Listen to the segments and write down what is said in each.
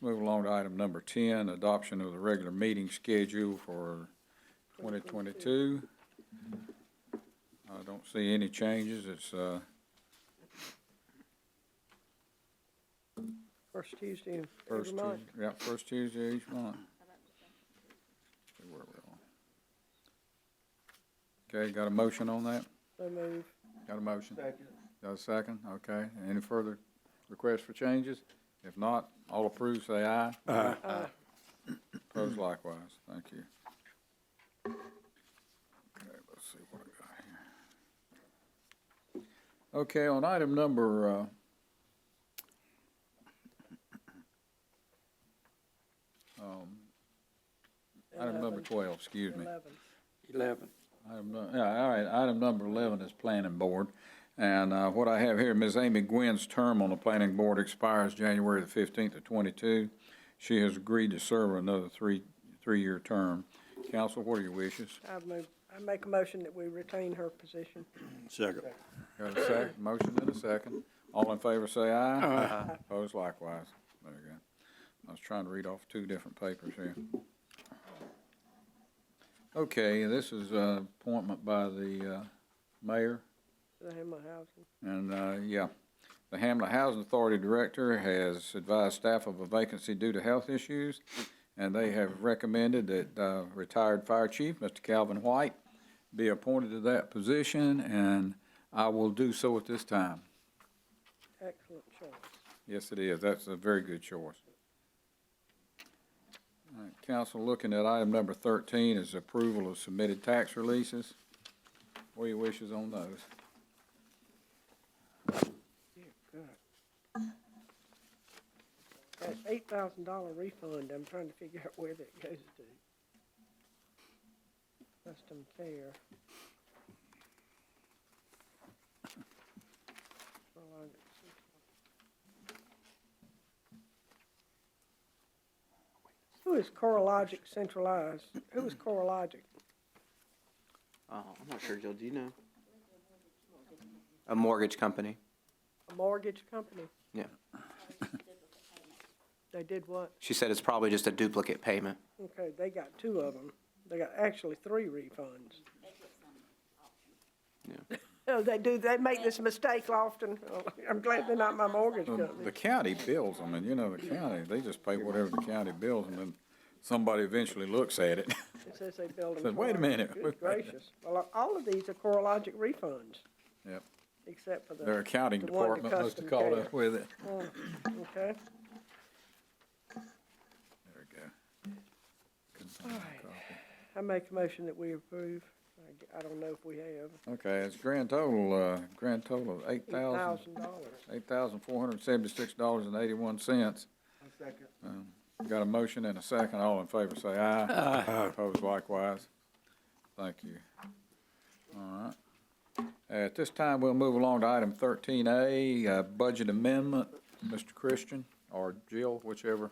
move along to item number ten, adoption of the regular meeting schedule for twenty twenty-two. I don't see any changes, it's, uh, First Tuesday of first every month. Tuesday, yeah, first Tuesday each month. See where we're on. Okay, got a motion on that? So move. Got a motion? Second. Got a second, okay. Any further requests for changes? If not, all approved, say aye. Aye. Opposed likewise, thank you. Okay, let's see what I got here. Okay, on item number, uh, um, item number Eleven. twelve, excuse me. Eleven. Eleven. Item nu- Yeah, all right, item number 11 is Planning Board. And uh, what I have here, Ms. Amy Gwynn's term on the Planning Board expires January the 15th of '22. She has agreed to serve another three, three-year term. Council, what are your wishes? I move, I make a motion that we retain her position. Second. Got a sec, motion and a second. All in favor, say aye. Aye. Opposed likewise. There you go. I was trying to read off two different papers here. Okay, this is uh, appointment by the uh, mayor. The Hamlet Housing. And, uh, yeah, the Hamlet Housing Authority Director has advised staff of a vacancy due to health issues, and they have recommended that uh, retired Fire Chief, Mr. Calvin White, be appointed to that position, and I will do so at this time. Excellent choice. Yes, it is. That's a very good choice. All right, Council, looking at item number thirteen is approval of submitted tax releases. What are your wishes on those? That eight thousand dollar refund, I'm trying to figure out where that goes to. That's unfair. Well, I- Who is CoreLogic centralized? Who is CoreLogic? Oh, I'm not sure, Jill, do you know? A mortgage company. A mortgage company? Yeah. They did what? She said it's probably just a duplicate payment. Okay, they got two of them. They got actually three refunds. Yeah. Oh, they do, they make this mistake often. Oh, I'm glad they're not my mortgage The- The company. county bills them, and you know, the county, they just pay whatever the county bills, and then somebody eventually looks at it. It says they build them. Says, "Wait a for us." minute, wait a minute. Good gracious. Well, uh, all of these are CoreLogic refunds, Yep, except for the. their accounting the one to department must have custom caught care. up with it. Okay, There we go. Couldn't find my Alright. copy. I make a motion that we approve. I g- I don't know if we have. Okay, it's grand total, uh, grand total of eight Eight thousand, thousand dollars. eight thousand four hundred and seventy-six dollars and eighty-one cents. Um, Got a motion and a second, all in favor say aye. Aye. Opposed likewise. Thank you. All right. At this time, we'll move along to item thirteen A, uh, budget amendment. Mr. Christian or Jill, whichever.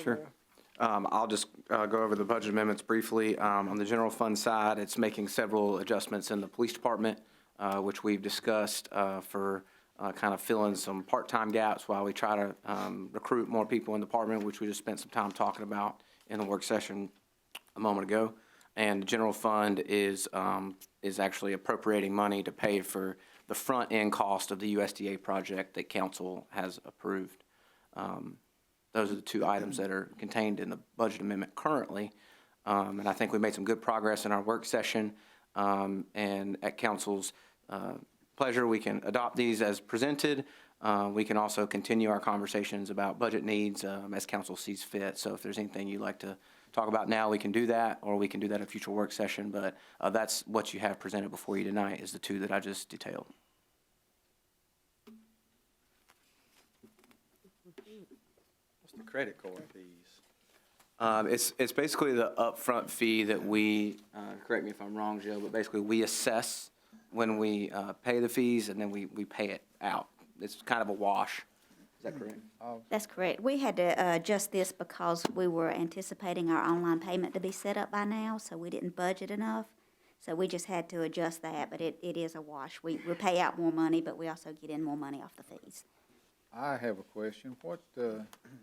Sure. Um, I'll just, uh, go over the budget amendments briefly. Um, on the general fund side, it's making several adjustments in the police department, uh, which we've discussed, uh, for, uh, kind of filling some part-time gaps while we try to, um, recruit more people in the department, which we just spent some time talking about in the work session a moment ago. And the general fund is, um, is actually appropriating money to pay for the front-end cost of the USDA project that council has approved. Um, Those are the two items that are contained in the budget amendment currently. Um, And I think we made some good progress in our work session. Um, And at council's uh, pleasure, we can adopt these as presented. Uh, We can also continue our conversations about budget needs um, as council sees fit. So if there's anything you'd like to talk about now, we can do that, or we can do that at a future work session. But uh, that's what you have presented before you tonight, is the two that I just detailed. The credit card fees. Um, it's, it's basically the upfront fee that we, uh, correct me if I'm wrong, Joe, but basically we assess when we, uh, pay the fees and then we, we pay it out. It's kind of a wash. Is that correct? That's correct. We had to uh, adjust this because we were anticipating our online payment to be set up by now, so we didn't budget enough. So we just had to adjust that, but it, it is a wash. We, we pay out more money, but we also get in more money off the fees. I have a question. What, uh,